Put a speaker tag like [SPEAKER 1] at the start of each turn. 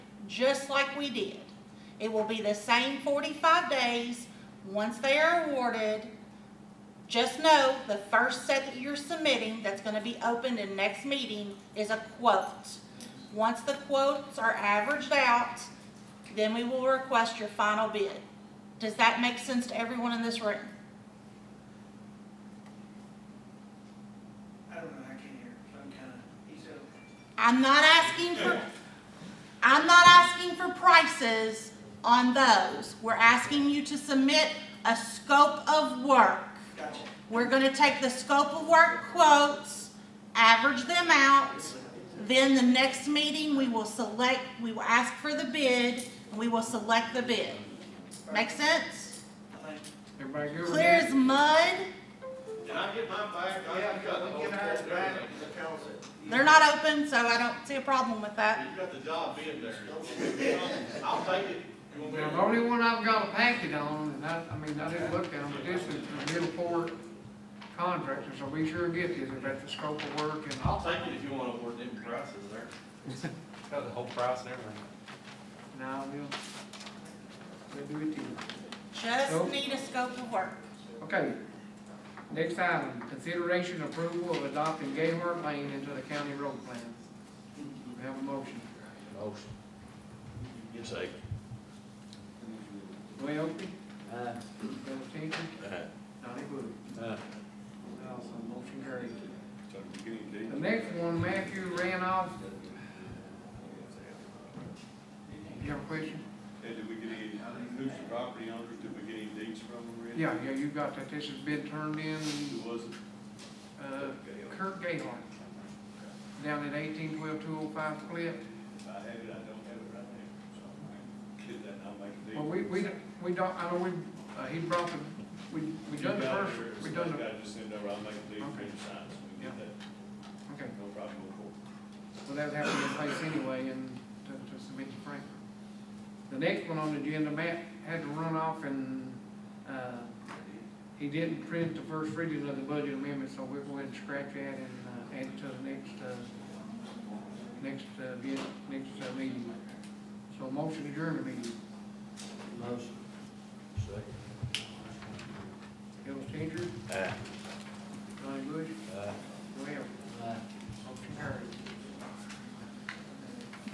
[SPEAKER 1] just like we did. It will be the same forty-five days, once they are awarded. Just know, the first set that you're submitting, that's gonna be opened in next meeting, is a quote. Once the quotes are averaged out, then we will request your final bid. Does that make sense to everyone in this room?
[SPEAKER 2] I don't know, I can't hear, I'm kinda, he's a,
[SPEAKER 1] I'm not asking for, I'm not asking for prices on those. We're asking you to submit a scope of work.
[SPEAKER 2] gotcha.
[SPEAKER 1] We're gonna take the scope of work quotes, average them out. Then the next meeting, we will select, we will ask for the bid, and we will select the bid. Make sense?
[SPEAKER 2] I think-
[SPEAKER 3] Everybody good with
[SPEAKER 1] Clear
[SPEAKER 3] that?
[SPEAKER 1] as mud.
[SPEAKER 4] Can I get mine back? I
[SPEAKER 2] Yeah,
[SPEAKER 4] got the
[SPEAKER 2] we
[SPEAKER 4] whole
[SPEAKER 2] give ours
[SPEAKER 4] thing
[SPEAKER 2] back
[SPEAKER 4] there.
[SPEAKER 2] because it-
[SPEAKER 1] They're not open, so I don't see a problem with that.
[SPEAKER 4] You got the job in there. I'll take it. You want me
[SPEAKER 3] Now, the
[SPEAKER 4] to-
[SPEAKER 3] only one I've got a packet on, and I, I mean, I didn't look at them, but this is the Middleport contractor, so be sure and get this, if that's the scope of work and.
[SPEAKER 4] I'll take it if you wanna award them prices there.
[SPEAKER 5] Got the whole price and everything.
[SPEAKER 3] Now, we'll, we'll do it to you.
[SPEAKER 1] Just
[SPEAKER 3] Nope.
[SPEAKER 1] need a scope of work.
[SPEAKER 3] Okay. Next item, consideration approval of adopting Gaylord Lane into the county road plan. We have a motion.
[SPEAKER 6] Motion.
[SPEAKER 4] You take.
[SPEAKER 3] Roy Oakley,
[SPEAKER 6] Aye.
[SPEAKER 3] Bill Changer,
[SPEAKER 6] Aye.
[SPEAKER 3] Donnie Bush.
[SPEAKER 6] Aye.
[SPEAKER 3] Also, motion carried. The next one, Matthew Randolph. You have a question?
[SPEAKER 7] Hey, did we get any, who's the property owners, did we get any deeds from them or anything?
[SPEAKER 3] Yeah, yeah, you got that. This has been turned in,
[SPEAKER 7] Who was it?
[SPEAKER 3] uh, Kirk Gaylord. Down at eighteen twelve two oh five Cliff.
[SPEAKER 7] If I have it, I don't have it right now, so I can get that, and I'll make a deed.
[SPEAKER 3] Well, we, we, we don't, I know we, uh, he brought the, we, we
[SPEAKER 7] You
[SPEAKER 3] done the
[SPEAKER 7] got it,
[SPEAKER 3] first, we
[SPEAKER 7] or
[SPEAKER 3] done
[SPEAKER 7] Somebody
[SPEAKER 3] the,
[SPEAKER 7] gotta just send over, I'll make a deed for
[SPEAKER 3] Okay.
[SPEAKER 7] you to sign, so we
[SPEAKER 3] Yeah.
[SPEAKER 7] can get that,
[SPEAKER 3] okay.
[SPEAKER 7] no problem, go forward.
[SPEAKER 3] Well, that would have to be in place anyway and to, to submit to Franklin. The next one on the agenda, Matt had to run off and, uh, he didn't print the first reading of the budget amendment, so we'll go ahead and scratch that and, uh, add it to the next, uh, next, uh, bid, next, uh, meeting. So motion to adjourn the meeting.